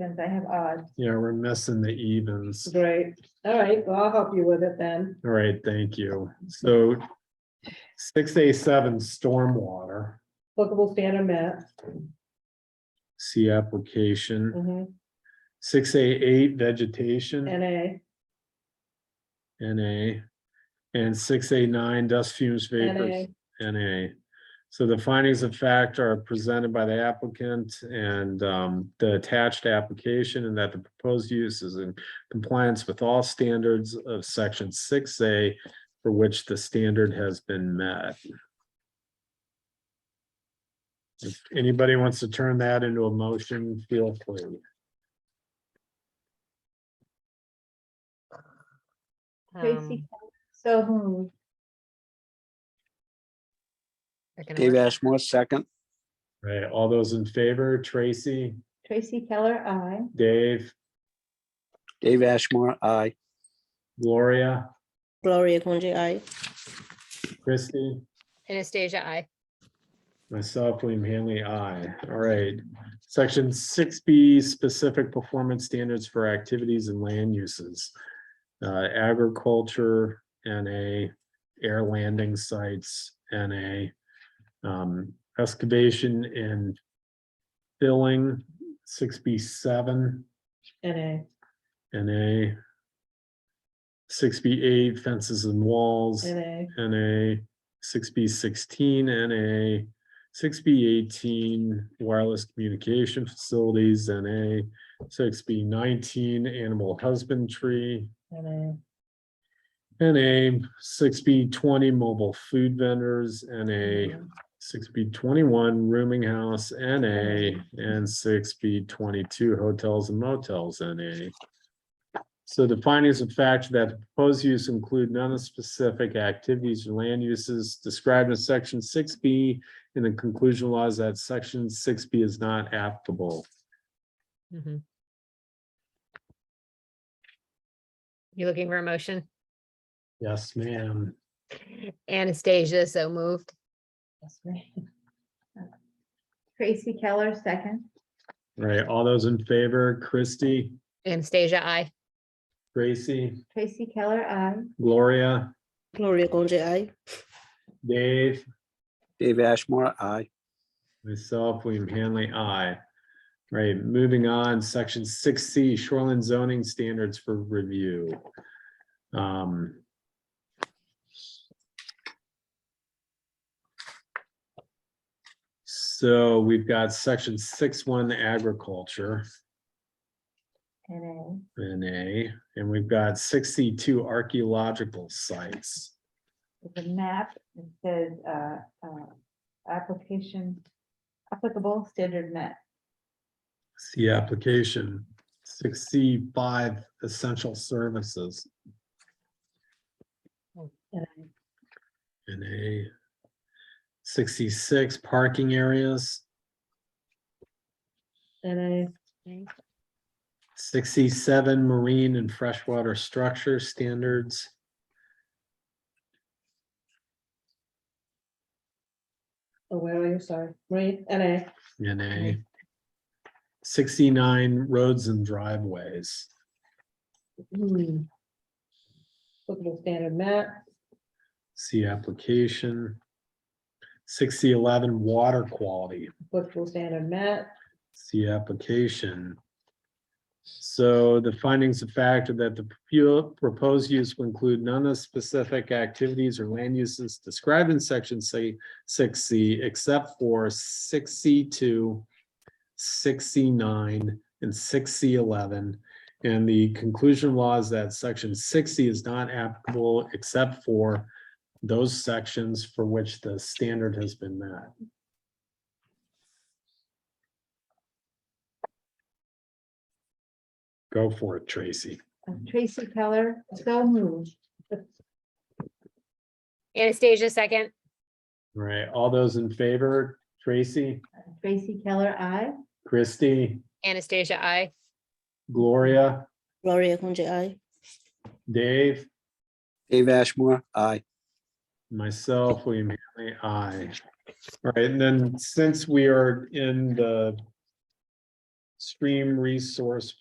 Evens, I have odds. Yeah, we're missing the evens. Great. All right, well, I'll help you with it then. All right, thank you. So six A seven stormwater, Applicable standard map. see application. Mhm. Six A eight vegetation, NA, NA. And six A nine dust fumes vapors, NA. So the findings of fact are presented by the applicant and um, the attached application and that the proposed use is in compliance with all standards of section six A for which the standard has been met. If anybody wants to turn that into a motion, feel free. Tracy, Um, so hmm, moved. I can Dave work- Ashmore, second. Right, all those in favor, Tracy, Tracy Keller, I. Dave, Dave Ashmore, aye. Gloria, Gloria Conji, aye. Christie? Anastasia, I. Myself, William Hanley, I. All right. Section six B, specific performance standards for activities and land uses. Uh, agriculture, NA, air landing sites, NA. Um, excavation and filling, six B seven, NA, NA. Six B eight, fences and walls. NA, NA, six B sixteen NA, six B eighteen wireless communication facilities NA, six B nineteen animal husbandry NA, NA, six B twenty mobile food vendors NA, six B twenty-one rooming house NA, and six B twenty-two hotels and motels NA. So the findings of fact that the proposed use include none of the specific activities or land uses described in section six B. And the conclusion laws that section six B is not applicable. Mhm. You looking for a motion? Yes, ma'am. Anastasia, so moved. that's me. Tracy Keller, second. All Right, all those in favor, Christie, Anastasia, I. Gracie, Tracy Keller, I. Gloria, Gloria Conji, aye. Dave. Dave Ashmore, aye. Myself, William Hanley, I. Right, moving on, section six C, shoreline zoning standards for review. Um, So we've got section six one agriculture NA. in A, and we've got sixty-two archaeological sites. With a map, it says, uh, uh, application applicable standard met. See application, six C five essential services. NA. And a sixty-six parking areas, NA, sixty-seven marine and freshwater structure standards. oh, where are you? Sorry, Marie, NA, And a sixty-nine roads and driveways, Hmm. Applicable standard map, see application. Sixty eleven water quality, applicable standard map, see application. So the findings of fact are that the propu- proposed use will include none of the specific activities or land uses described in section C, six C, except for six C two, six C nine, and six C eleven. And the conclusion law is that section sixty is not applicable except for those sections for which the standard has been met. Go for it, Tracy. Uh, Tracy Keller, so hmm. moved. Anastasia, second. All right, all those in favor, Tracy, Tracy Keller, I. Christy, Anastasia, I. Gloria, Gloria Conji, aye. Dave? Dave Ashmore, aye. Myself, William Hanley, I. All right, and then since we are in the stream resource